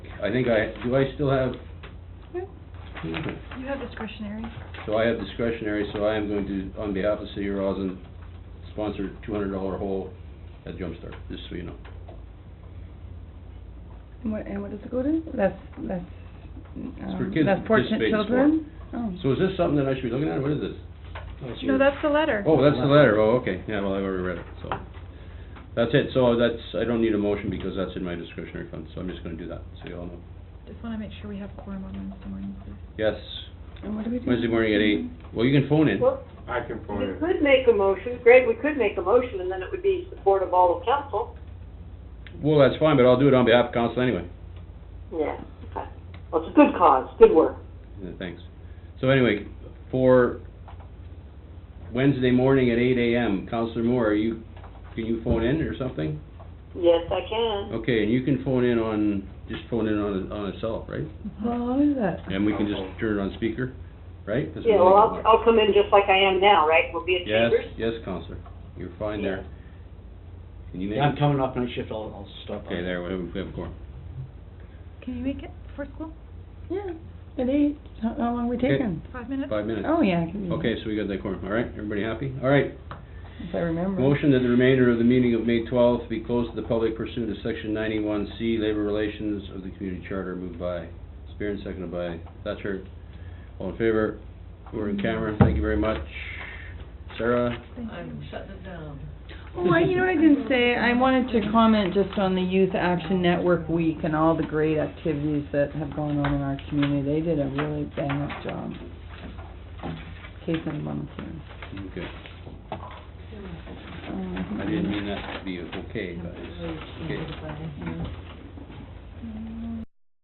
I think I, do I still have, You have discretionary. so I have discretionary, so I am going to, on behalf of City of Roslin, sponsor two hundred dollar hole at Jumpstart, just so you know. And what, and what does it go to? That's, that's, It's for um, kids that's to fortunate participate in sport. children? Oh. So is this something that I should be looking at, what is this? No, that's the letter. Oh, that's the letter, oh, okay, yeah, well, I've already read it, so. That's it, so that's, I don't need a motion because that's in my discretionary fund, so I'm just gonna do that, so you all know. Just wanna make sure we have quorum on Wednesday morning, please. Yes, And what do we do? Wednesday morning at eight, well, you can phone in. Well, I can phone we it. could make a motion, Greg, we could make a motion, and then it would be support of all of council. Well, that's fine, but I'll do it on behalf of council anyway. Yeah, okay. Well, it's a good cause, good work. Yeah, thanks. So anyway, for Wednesday morning at eight AM, Counselor Moore, are you, can you phone in or something? Yes, I can. Okay, and you can phone in on, just phone in on, on itself, right? Well, what is that? And we can just turn it on speaker, right? That's what Yeah, well, we I'll, can do. I'll come in just like I am now, right? We'll be at Yes, Chambers. yes, Counselor, you're fine there. Can you make Yeah, I'm it? coming off night shift, I'll, I'll stop by. Okay, there, we have, we have a quorum. Can you make it before school? Yeah, at eight. How, how long we Okay. taking? Five minutes? Five minutes. Oh, yeah, I can do Okay, so we got that quorum, all right? Everybody happy? All right, that, If I remember. Motion that the remainder of the meeting of May twelfth be closed to the public pursuant to section ninety-one C, labor relations of the community charter, moved by Spear and seconded by Thatcher. All in favor? We're in camera, thank you very much. Sarah? Thank you. Oh, I, you know what I didn't say? I wanted to comment just on the Youth Action Network Week and all the great activities that have gone on in our community. They did a really bang-up job. Case in one, two. Okay, Um, I didn't mean that to be okay, but it's, okay.